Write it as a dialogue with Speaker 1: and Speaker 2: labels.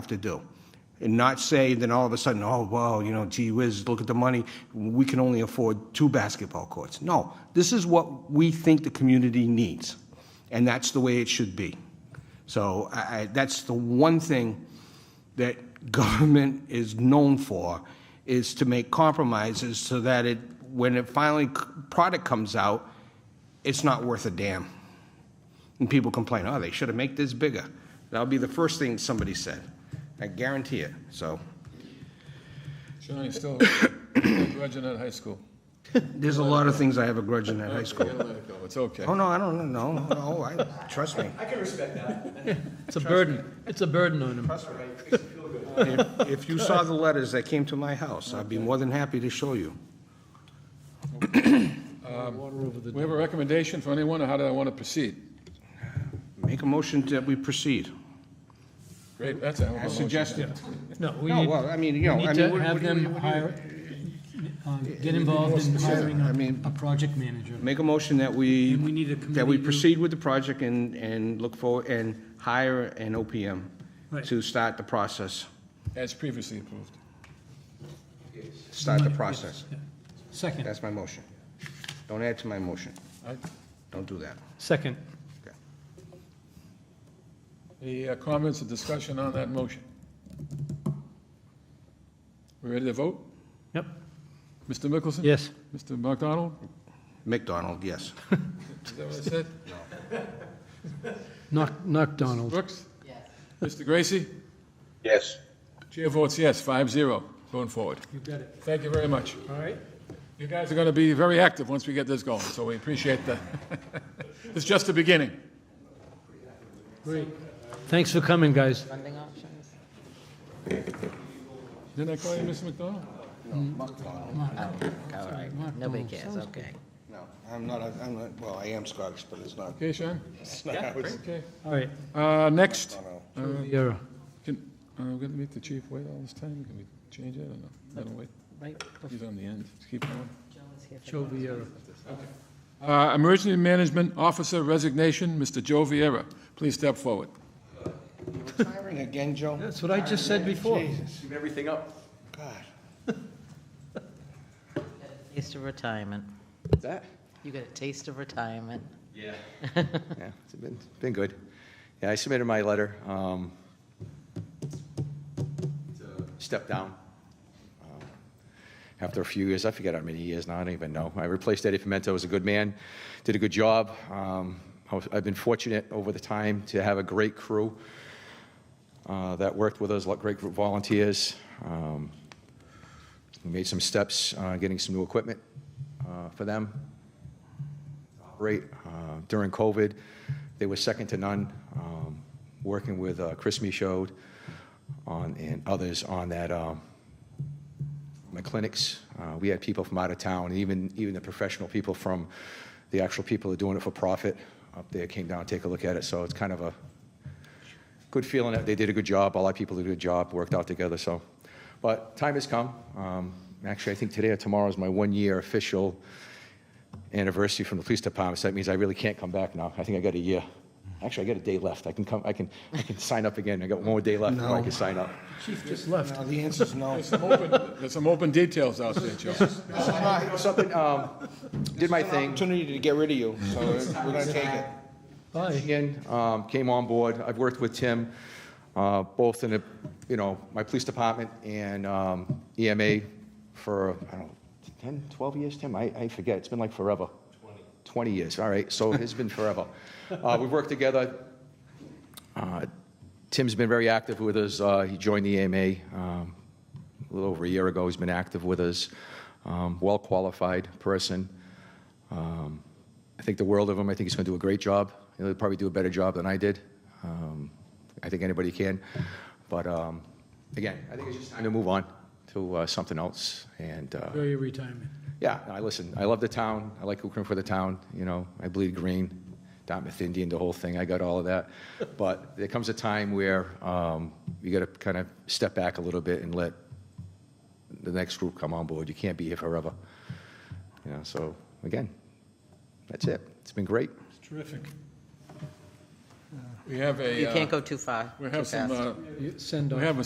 Speaker 1: to do. And not say, then all of a sudden, oh, wow, you know, gee whiz, look at the money, we can only afford two basketball courts. No, this is what we think the community needs, and that's the way it should be. So I, I, that's the one thing that government is known for, is to make compromises so that it, when it finally, c- product comes out, it's not worth a damn. And people complain, oh, they should have made this bigger. That'll be the first thing somebody said. I guarantee it, so.
Speaker 2: Sean, you still still grudging at high school.
Speaker 1: There's a lot of things I have a grudge in at high school.
Speaker 2: Gotta let it go, it's okay.
Speaker 1: Oh, no, I don't know, no, no, I, trust me.
Speaker 3: I can respect that.
Speaker 4: It's a burden. It's a burden on him.
Speaker 1: If- If you saw the letters that came to my house, I'd be more than happy to show you.
Speaker 2: We have a recommendation for anyone, or how do I want to proceed?
Speaker 1: Make a motion that we proceed.
Speaker 2: Great, that's a hell of a
Speaker 1: As
Speaker 2: motion.
Speaker 1: suggested.
Speaker 4: No, we
Speaker 1: No,
Speaker 4: need,
Speaker 1: well, I mean, you
Speaker 4: we
Speaker 1: know, I
Speaker 4: need
Speaker 1: mean,
Speaker 4: to
Speaker 1: what- what do
Speaker 4: have
Speaker 1: you-
Speaker 4: them
Speaker 1: what do you-
Speaker 4: hire, uh, get involved in hiring
Speaker 1: I mean-
Speaker 4: a, a project manager.
Speaker 1: Make a motion that we.
Speaker 4: And we need a
Speaker 1: That we
Speaker 4: committee to-
Speaker 1: proceed with the project and, and look forward, and hire an OPM
Speaker 4: Right.
Speaker 1: to start the process,
Speaker 2: As previously approved.
Speaker 1: start the process.
Speaker 4: Second.
Speaker 1: That's my motion. Don't add to my motion.
Speaker 2: I-
Speaker 1: Don't do that.
Speaker 4: Second.
Speaker 1: Okay.
Speaker 2: Any uh, comments or discussion on that motion? We ready to vote?
Speaker 4: Yep.
Speaker 2: Mr. Mickelson?
Speaker 4: Yes.
Speaker 2: Mr. McDonald?
Speaker 1: McDonald, yes.
Speaker 2: Is that what I said?
Speaker 4: Knock, knock Donald.
Speaker 2: Brooks? Yes. Mr. Gracie?
Speaker 1: Yes.
Speaker 2: Chair votes yes, five zero, going forward.
Speaker 4: You got it.
Speaker 2: Thank you very much.
Speaker 4: All right.
Speaker 2: You guys are going to be very active once we get this going, so we appreciate the, it's just the beginning.
Speaker 4: Great. Thanks for coming, guys.
Speaker 5: funding options?
Speaker 2: Didn't I call you Mr. McDonald?
Speaker 5: All right, nobody cares, okay.
Speaker 1: No, I'm not, a- I'm not, well, I am Scottish, but it's not.
Speaker 2: Okay, Sean?
Speaker 1: it's not how it's-
Speaker 2: Okay.
Speaker 4: All right.
Speaker 2: Uh, next,
Speaker 4: You're-
Speaker 2: can, uh, we're going to make the chief wait all this time? Can we change it or no? Let him wait.
Speaker 5: Right,
Speaker 2: He's on the end. Keep going.
Speaker 5: Joe is here for
Speaker 4: Joe Vieira.
Speaker 2: Uh, Emergency Management Officer resignation, Mr. Joe Vieira. Please step forward.
Speaker 1: Hiring again, Joe?
Speaker 4: That's what I just said before.
Speaker 3: Keep everything up.
Speaker 1: God.
Speaker 5: taste of retirement.
Speaker 6: What's that?
Speaker 5: You got a taste of retirement.
Speaker 6: Yeah, it's been, been good. Yeah, I submitted my letter. um, Stepped down. um, After a few years, I forget how many years now, I don't even know. I replaced Eddie Pimento, was a good man, did a good job. Um, I was- I've been fortunate over the time to have a great crew uh, that worked with us, a lot of great group volunteers. Um, We Made some steps, uh, getting some new equipment uh, for them, Great. Uh, During COVID, they were second to none, um, working with uh, Chris Michaud on, and others on that, um, my clinics. Uh, We had people from out of town, and even, even the professional people from, the actual people that are doing it for profit up there came down, to take a look at it. So it's kind of a good feeling that they did a good job. A lot of people did a good job, worked out together, so. But time has come. Um, Actually, I think today or tomorrow is my one-year official anniversary from the police department, so that means I really can't come back now. I think I got a year. Actually, I got a day left. I can come, I can, I can sign up again. I got one more day left before I
Speaker 1: No.
Speaker 6: can sign up.
Speaker 4: Chief just left.
Speaker 1: No, the answer's no.
Speaker 2: There's some open, there's some open details out there, Joe.
Speaker 6: Something, um, did my thing.
Speaker 1: Opportunity to get rid of you, so we're gonna take it.
Speaker 4: Bye.
Speaker 6: Michigan, um, came on board. I've worked with Tim, uh, both in, the, you know, my police department and um, EMA for, I don't know, 10, 12 years, Tim? I, I forget. It's been like forever. 20. 20 years, all right. So it's been forever. Uh, We've worked together. Uh, Tim's been very active with us. Uh, He joined the EMA um, a little over a year ago. He's been active with us. Um, Well-qualified person. Um, I think the world of him. I think he's going to do a great job. He'll probably do a better job than I did. Um, I think anybody can. But um, again, I think it's just time to move on to uh, something else. And uh,
Speaker 4: Enjoy your retirement.
Speaker 6: yeah, I listen. I love the town. I like Ukraine for the town. You know, I bleed green, Dartmouth Indian, the whole thing. I got all of that. But there comes a time where um, you got to kind of step back a little bit and let the next group come on board. You can't be here forever. You know, so again, that's it. It's been great.
Speaker 4: Terrific.
Speaker 2: We have a,
Speaker 5: You can't
Speaker 2: uh,
Speaker 5: go too far,
Speaker 2: we uh,
Speaker 5: too
Speaker 2: have some,
Speaker 5: fast.
Speaker 2: uh,
Speaker 4: Send off.
Speaker 2: we have